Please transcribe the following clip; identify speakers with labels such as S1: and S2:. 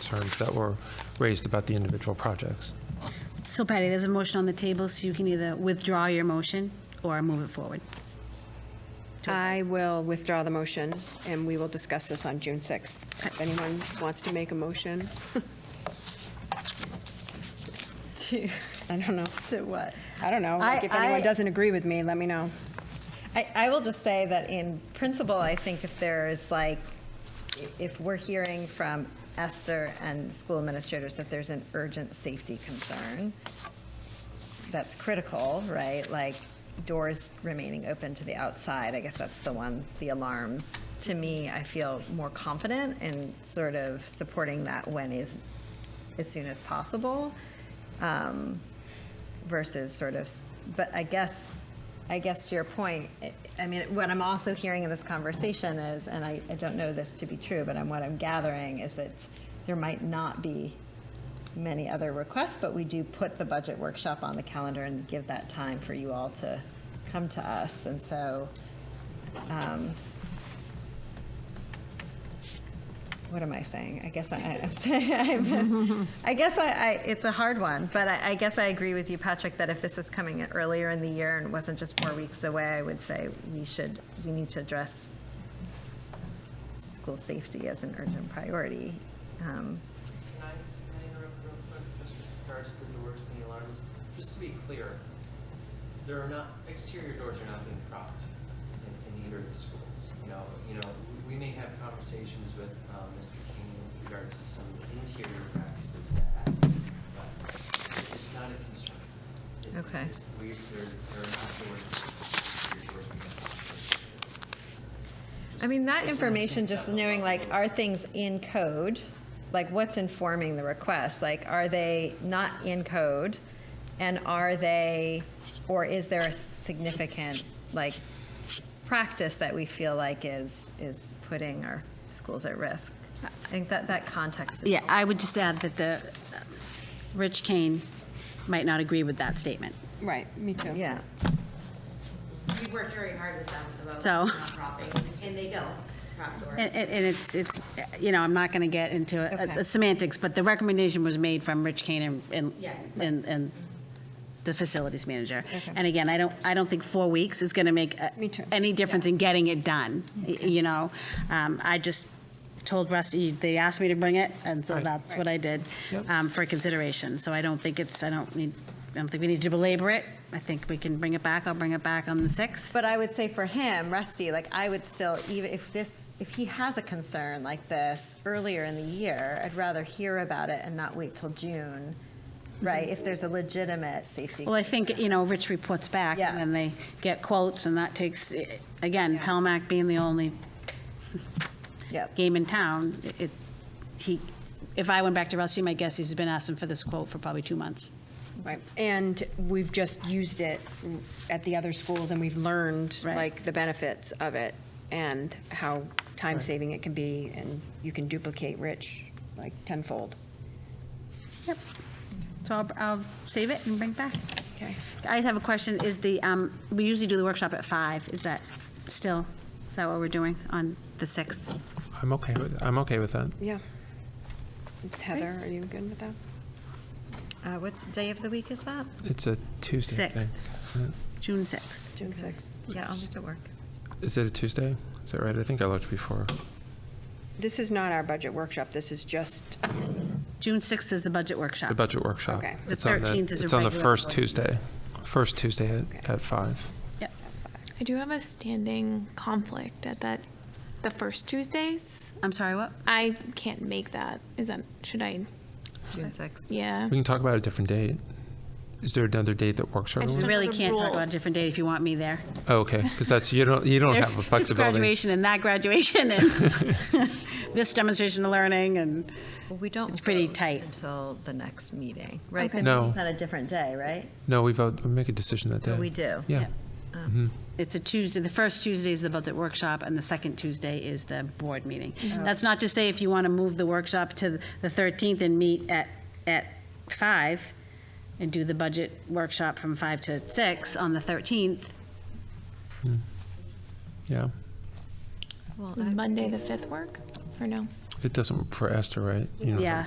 S1: concerns that were raised about the individual projects.
S2: So Patty, there's a motion on the table, so you can either withdraw your motion or move it forward.
S3: I will withdraw the motion, and we will discuss this on June 6th. If anyone wants to make a motion. To, I don't know. To what? I don't know. Like,
S4: I-
S3: if anyone
S4: I-
S3: doesn't agree with me, let me know.
S4: I, I will just say that in principle, I think if there is like, if we're hearing from Esther and school administrators that there's an urgent safety concern, that's critical, right? Like doors remaining open to the outside, I guess that's the one, the alarms. To me, I feel more confident in sort of supporting that when is, as soon as possible. Um, versus sort of, but I guess, I guess to your point, I- I mean, what I'm also hearing in this conversation is, and I, I don't know this to be true, but I'm, what I'm gathering is that there might not be many other requests, but we do put the budget workshop on the calendar and give that time for you all to come to us. And so, um, what am I saying? I guess I, I'm saying, I'm, I guess I, I, it's a hard one, but I, I guess I agree with you, Patrick, that if this was coming in earlier in the year and wasn't just four weeks away, I would say we should, we need to address s- s- school safety as an urgent priority. Um,
S5: Can I, can I interrupt real quick, just with regards to the doors and the alarms? Just to be clear, there are not, exterior doors are not being propped in, in either of the schools. You know, you know, we may have conversations with, um, Mr. King with regards to some interior practices that happen, but it's not a concern. It-
S4: Okay.
S5: it's- We, there, there are not doors, exterior doors being propped.
S4: I mean, that
S5: Just- just
S4: information,
S5: wanna
S4: just
S5: think that
S4: knowing like,
S5: about.
S4: are things in code? Like, what's informing the request? Like, are they not in code? And are they, or is there a significant, like, practice that we feel like is, is putting our schools at risk? I think that, that context is.
S2: Yeah, I would just add that the, uh, Rich Kane might not agree with that statement.
S3: Right, me too.
S4: Yeah.
S6: We've worked very hard with them about
S2: So-
S6: nonprofit, and they don't prop doors.
S2: And, and and it's, it's, uh, you know, I'm not going to get into uh,
S4: Okay.
S2: the semantics, but the recommendation was made from Rich Kane and- and,
S6: Yeah.
S2: and, and the facilities manager. And again, I don't, I don't think four weeks is going to make uh,
S3: Me too.
S2: any difference in getting it done, y- you know? Um, I just told Rusty, they asked me to bring it, and so
S1: Right.
S2: that's what I did
S1: Yep.
S2: um, for consideration. So I don't think it's, I don't need, I don't think we need to belabor it. I think we can bring it back. I'll bring it back on the 6th.
S4: But I would say for him, Rusty, like I would still, even if this, if he has a concern like this earlier in the year, I'd rather hear about it and not wait till June, right? If there's a legitimate safety.
S2: Well, I think, you know, Rich reports back,
S4: Yeah.
S2: and then they get quotes, and that takes, eh, again, Palmac being the only
S4: Yep.
S2: game in town, it, he, if I went back to Rusty, my guess is he's been asking for this quote for probably two months.
S3: Right, and we've just used it at the other schools, and we've learned,
S2: Right.
S3: like, the benefits of it, and how time-saving it can be, and you can duplicate Rich, like, tenfold.
S2: Yep. So I'll, I'll save it and bring it back.
S3: Okay.
S2: I have a question, is the, um, we usually do the workshop at five, is that still, is that what we're doing on the 6th?
S1: I'm okay with, I'm okay with that.
S3: Yeah. Heather, are you good with that?
S4: Uh, what day of the week is that?
S1: It's a Tuesday. I think.
S2: June 6th?
S3: June 6th.
S4: Yeah, I'll make it work.
S1: Is it a Tuesday? Is that right? I think I looked before.
S3: This is not our budget workshop, this is just,
S2: June 6th is the budget workshop.
S1: The budget workshop.
S3: Okay.
S2: The
S1: It's on
S2: 13th is a
S1: It's on the
S2: regular
S1: first
S2: board.
S1: Tuesday, first Tuesday at,
S3: Okay.
S1: at five.
S2: Yep.
S7: I do have a standing conflict at that, the first Tuesdays.
S2: I'm sorry, what?
S7: I can't make that. Is that, should I?
S4: June sixth.
S7: Yeah.
S1: We can talk about a different date. Is there another date that works for
S7: I just
S2: We
S1: everyone?
S7: don't-
S2: really
S7: Another
S2: can't talk about a
S7: rules.
S2: different date if you want me there.
S1: Oh, okay, because that's, you don't, you don't
S2: There's
S1: have a
S2: this
S1: flexibility.
S2: graduation and that graduation and this demonstration of learning and,
S4: Well, we don't.
S2: It's pretty
S4: vote
S2: tight.
S4: Until the next meeting, right?
S7: Okay.
S4: The
S1: No.
S4: meeting's On a different day, right?
S1: No, we vote, we make a decision that day. Mm-hmm.
S4: We do.
S1: Yeah.
S2: it's a Tuesday, the first Tuesday is the budget workshop, and the second Tuesday is the board meeting. That's not to say if you want to move the workshop to the 13th and meet at, at 5 and do the budget workshop from 5 to 6 on the 13th,
S1: Yeah.
S4: Well, I-
S7: Mm-hmm. Would Monday, the fifth work, or no?
S1: It doesn't work for Esther, right? You know,
S2: yeah.